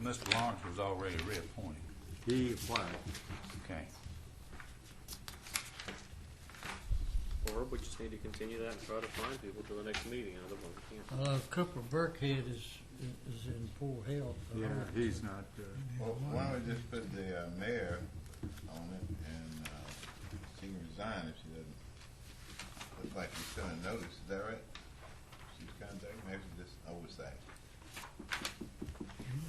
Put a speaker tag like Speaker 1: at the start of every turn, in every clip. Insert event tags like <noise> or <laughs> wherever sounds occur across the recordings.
Speaker 1: Mr. Lawrence was already reappointed,
Speaker 2: He applied.
Speaker 1: okay.
Speaker 3: Or we just need to continue that and try to find people till the next meeting, another one, we can't.
Speaker 4: Uh, Cooper Burkhead is, is in poor health. Uh-huh.
Speaker 2: Yeah, he's not, uh,
Speaker 5: Well, why don't we just put the uh, mayor on it and uh, she can resign if she doesn't look like she's sending a notice, is that right? She's contacting, maybe just oversight.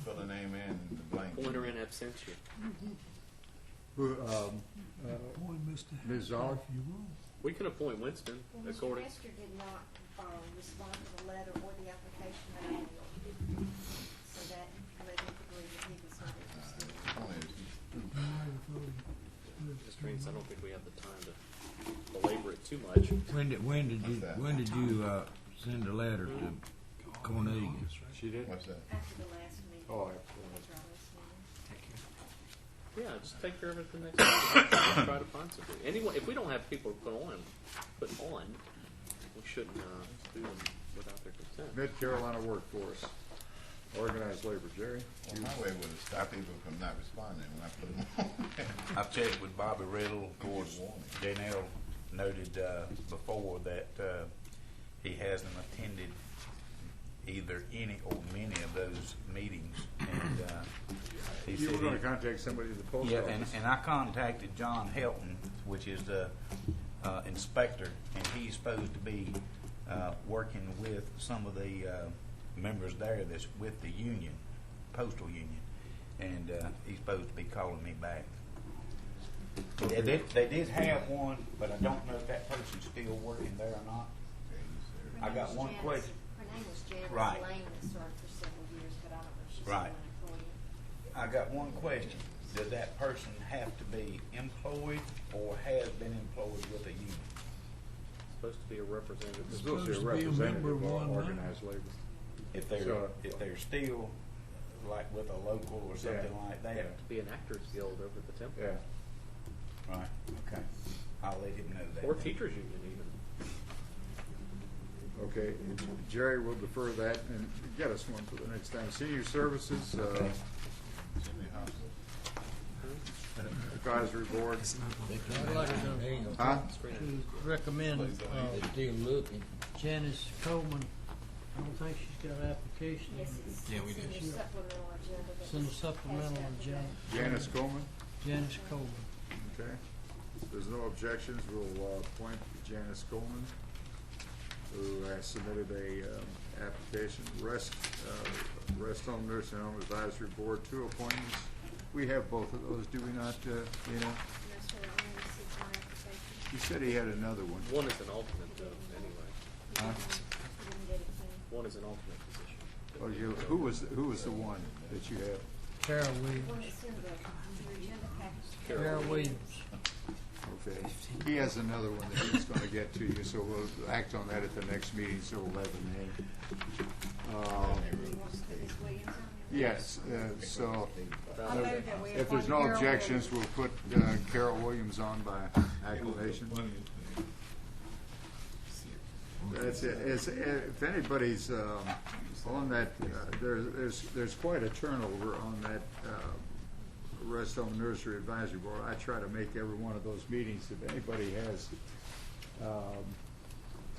Speaker 5: Fill her name in in the blank.
Speaker 3: Point her in absentia.
Speaker 2: who, um, uh,
Speaker 4: Boy, Mr.
Speaker 2: Ms. Odd,
Speaker 3: We can appoint Winston
Speaker 6: Well, Mr.
Speaker 3: according,
Speaker 6: Nestor did not uh, respond to the letter or the application that I mailed. So that led me to believe that he was not interested.
Speaker 5: Uh, Only if she's
Speaker 3: Mr. Reeves, I don't think we have the time to belabor it too much.
Speaker 7: When did, when did you,
Speaker 5: What's that?
Speaker 7: when did you, uh, send a letter to Cornelia?
Speaker 2: she did?
Speaker 5: What's that?
Speaker 6: After the last meeting.
Speaker 2: Oh,
Speaker 6: After our last meeting.
Speaker 3: Yeah, just take care of it the next meeting, Just try to find something. Anyone, if we don't have people to put on, put on, we shouldn't, uh, do them without their consent.
Speaker 2: Mid Carolina Workforce, organized labor, Jerry.
Speaker 5: Well, my way would have stopped people from not responding when I put them on. <laughs>
Speaker 1: I've checked with Bobby Riddle, of course, Danell noted, uh, before that, uh, he hasn't attended either any or many of those meetings, and, uh, he
Speaker 2: You were
Speaker 1: said he-
Speaker 2: gonna contact somebody at the post
Speaker 1: Yeah, and,
Speaker 2: office.
Speaker 1: and I contacted John Helton, which is the uh, inspector, and he's supposed to be uh, working with some of the uh, members there that's with the union, postal union, and uh, he's supposed to be calling me back. They did, they did have one, but I don't know if that person's still working there or not.
Speaker 6: Her
Speaker 1: I
Speaker 6: name
Speaker 1: got
Speaker 6: was
Speaker 1: one
Speaker 6: Janice-
Speaker 1: question.
Speaker 6: Her name was Janice
Speaker 1: Right.
Speaker 6: Lane that served for several years, but I don't know if she's still
Speaker 1: Right.
Speaker 6: an employee.
Speaker 1: I got one question. Does that person have to be employed or has been employed with a union?
Speaker 3: It's supposed to be a representative.
Speaker 2: It's supposed to be a
Speaker 7: Supposed to be a
Speaker 2: representative
Speaker 7: member of
Speaker 2: of
Speaker 7: one, huh?
Speaker 2: organized labor.
Speaker 1: If they're,
Speaker 2: So-
Speaker 1: if they're still like with a local or something
Speaker 2: Yeah.
Speaker 1: like that.
Speaker 3: Be an actors guild over at the temple.
Speaker 2: Yeah,
Speaker 1: Right, okay. I'll let him know that.
Speaker 3: Or
Speaker 1: then.
Speaker 3: teachers union even.
Speaker 2: okay. Jerry will defer that and get us one for the next time. Senior Services, uh,
Speaker 5: Jimmy Hoffa.
Speaker 2: Advisory Board.
Speaker 4: I'd like to-
Speaker 2: Huh?
Speaker 4: to recommend uh,
Speaker 7: Still looking.
Speaker 4: Janice Coleman. I don't think she's got an application.
Speaker 6: Yes, it's
Speaker 7: Yeah, we did.
Speaker 6: it's in the supplemental agenda. that
Speaker 4: It's in the
Speaker 6: was passed
Speaker 4: supplemental
Speaker 6: out today.
Speaker 4: agenda.
Speaker 2: Janice Coleman,
Speaker 4: Janice Coleman.
Speaker 2: okay. If there's no objections, we'll uh, appoint Janice Coleman, who has submitted a um, application. Rest, uh, Rest Home Nursing Home Advisory Board, two appointments. We have both of those, do we not, uh, Dana?
Speaker 6: No, sir, I only received one application.
Speaker 2: You said he had another one.
Speaker 3: One is an alternate though, anyway.
Speaker 6: We didn't- we didn't get it clean.
Speaker 3: One is an alternate position.
Speaker 2: Oh, you, who was, who was the one that you have?
Speaker 4: Tara Williams.
Speaker 6: One that's in the, your agenda package.
Speaker 4: Tara Williams.
Speaker 2: Okay. He has another one that he's gonna get to you, so we'll act on that at the next meeting, so we'll have a name. Um,
Speaker 6: He wants to put Ms. Williams on there?
Speaker 2: Yes, uh, so
Speaker 6: I move that we
Speaker 2: if there's
Speaker 6: appoint
Speaker 2: no
Speaker 6: Carol
Speaker 2: objections,
Speaker 6: Williams.
Speaker 2: we'll put uh, Carol Williams on by acclamation. That's it. It's- If anybody's um, on that, uh, there- there's, there's quite a turnover on that uh, Rest Home Nursery Advisory Board. I try to make every one of those meetings, if anybody has, um,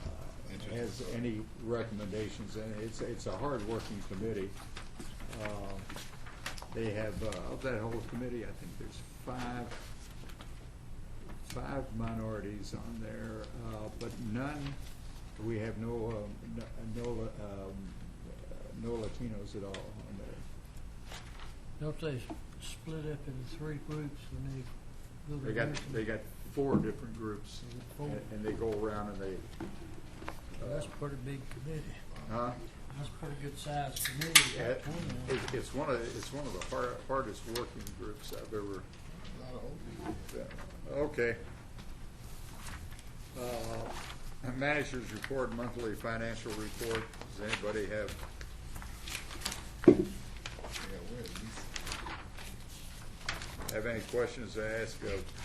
Speaker 2: uh, has any recommendations, and it's, it's a hard-working committee. Um, They have, uh, of that whole committee, I think there's five five minorities on there, uh, but none, we have no, um, no, no, um, no Latinos at all on there.
Speaker 4: Don't they split up into three groups when they go to
Speaker 2: They got,
Speaker 4: nursing?
Speaker 2: they got four different groups,
Speaker 4: Four.
Speaker 2: and and they go around and they,
Speaker 4: Oh, That's a pretty big committee.
Speaker 2: huh?
Speaker 4: That's a pretty good sized committee.
Speaker 2: Yeah,
Speaker 4: Got
Speaker 2: it-
Speaker 4: 20 on it.
Speaker 2: It's one of, it's one of the har- hardest working groups I've ever. Okay. Uh, Managers report, monthly financial report, does anybody have? Have any questions to ask of